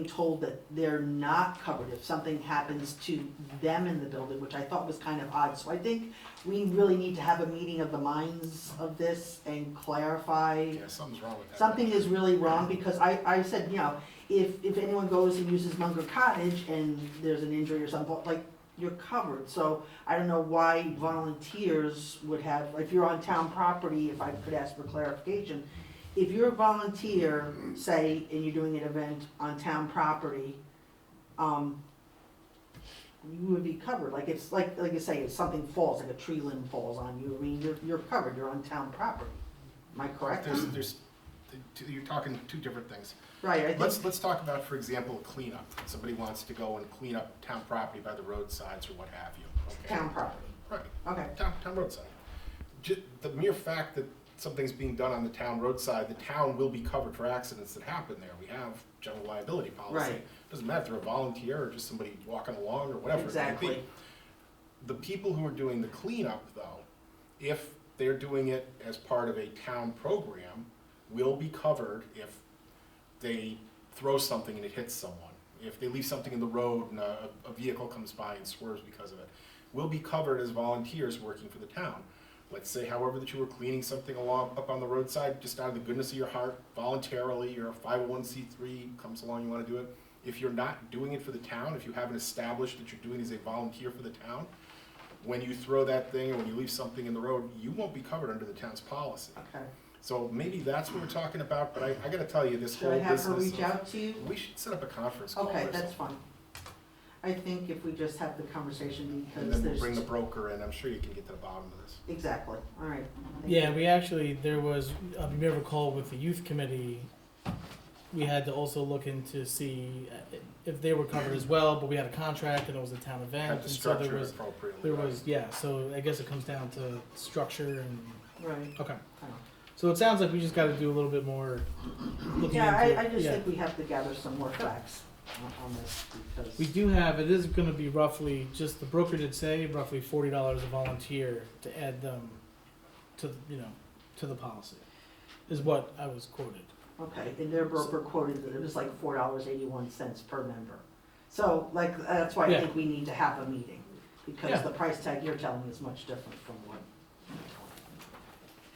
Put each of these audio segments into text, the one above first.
told that they're not covered if something happens to them in the building, which I thought was kind of odd. So I think we really need to have a meeting of the minds of this and clarify. Yeah, something's wrong with that. Something is really wrong because I, I said, you know, if, if anyone goes and uses Munger Cottage and there's an injury or something, like, you're covered. So I don't know why volunteers would have, if you're on town property, if I could ask for clarification. If you're a volunteer, say, and you're doing an event on town property, um, you would be covered. Like it's, like, like you say, if something falls, like a tree limb falls on you, I mean, you're, you're covered, you're on town property. Am I correct? There's, there's, you're talking two different things. Right, I think, Let's, let's talk about, for example, cleanup. Somebody wants to go and clean up town property by the roadsides or what have you, okay? town property, Right. okay, town, town roadside. Ju- the mere fact that something's being done on the town roadside, the town will be covered for accidents that happen there. We have general liability policy. Right. Doesn't matter if they're a volunteer or just somebody walking along or whatever it may be. Exactly. The people who are doing the cleanup though, if they're doing it as part of a town program, will be covered if they throw something and it hits someone, if they leave something in the road and a, a vehicle comes by and swerves because of it, will be covered as volunteers working for the town. Let's say, however, that you were cleaning something along, up on the roadside, just out of the goodness of your heart, voluntarily, you're a five oh one C three, comes along, you wanna do it. If you're not doing it for the town, if you haven't established that you're doing it as a volunteer for the town, when you throw that thing or when you leave something in the road, you won't be covered under the town's policy. okay. So maybe that's what we're talking about, but I, I gotta tell you, this Should whole I business. have her reach of- out to you? We should set up a conference call. Okay, or that's something, fine. I think if we just have the conversation And because then we'll there's. bring the broker in, I'm sure you can get to the bottom of this. Exactly, all right. Thank Yeah, we actually, there was, uh, if you recall, with the youth committee, we had to also look into see uh, if they were covered as well, but we had a contract and it was a town event. Have to and so there structure it was- appropriately. There right? was, yeah, so I guess it comes down to structure and, you. Right. okay. Oh. So it sounds like we just gotta do a little bit more looking Yeah, into it. I, I just Yeah. think we have to gather some more facts on- on this because. We do have, it is gonna be roughly, just the broker did say, roughly forty dollars a volunteer to add them to, the- you know, to the policy, is what I was quoted. Okay, and their broker quoted that it was like four dollars eighty-one cents per member. So like, that's why I Yeah. think we need to have a meeting, because Yeah. the price tag you're telling me is much different from what.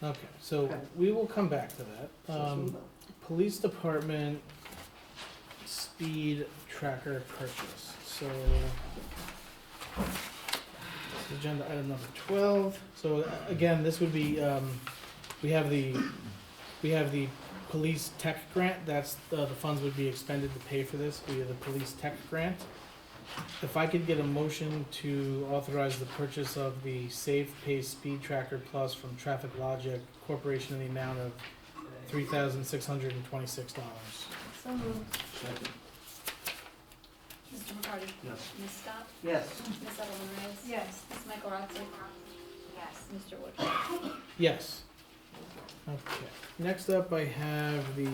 Okay, so Okay. we will come back to that. so it's Um, about. police department speed tracker purchase, so. Agenda item number twelve, so uh, again, this would be, um, we have the, we have the police tech grant, that's, uh, the funds would be expended to pay for this via the police tech grant. If I could get a motion to authorize the purchase of the Safe Pace Speed Tracker Plus from Traffic Logic Corporation in the amount of three thousand six hundred and twenty-six dollars. So moved. Mr. McCarty? Yes. Ms. Scott? Yes, Ms. Edelman Reyes? Yes. Ms. Michael Rotzi? Yes. Mr. Wood? Yes. Okay, next up I have the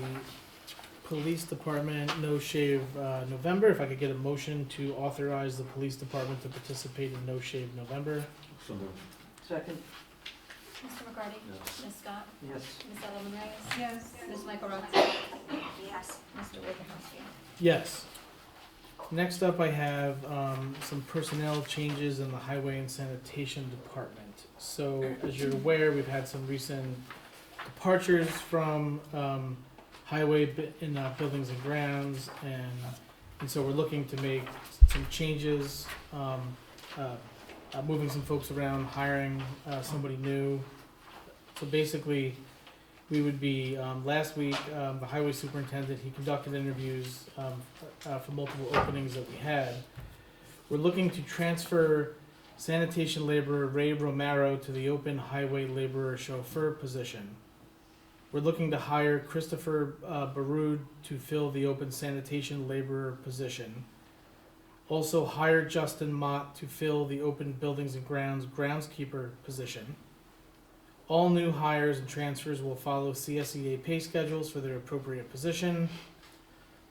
Police Department No Shave uh, November. If I could get a motion to authorize the Police Department to participate in No Shave November. So moved. second, Mr. McCarty? Yes. Ms. Scott? yes, Ms. Edelman Reyes? Yes. Ms. Michael Rotzi? Yes. Mr. Wojciechowski? Yes. Next up I have um, some personnel changes in the Highway and Sanitation Department. So as you're aware, we've had some recent departures from um, highway bu- in uh, buildings and grounds, and and so we're looking to make some changes, um, uh, uh, moving some folks around, hiring uh, somebody new. So basically, we would be um, last week um, the highway superintendent he conducted interviews um, uh, for multiple openings that we had. We're looking to transfer sanitation laborer Ray Romero to the open highway laborer chauffeur position. We're looking to hire Christopher uh, Barud to fill the open sanitation laborer position. Also hire Justin Mott to fill the open buildings and grounds groundskeeper position. All new hires and transfers will follow CSEA pay schedules for their appropriate position.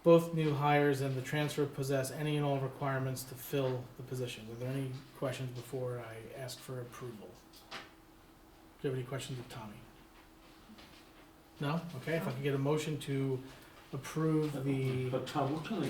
Both new hires and the transfer possess any and all requirements to fill the position. Were there any questions before I ask for approval? Do you have any questions of Tommy? No? Okay, if I could get a motion to approve the. But Tom, what kind of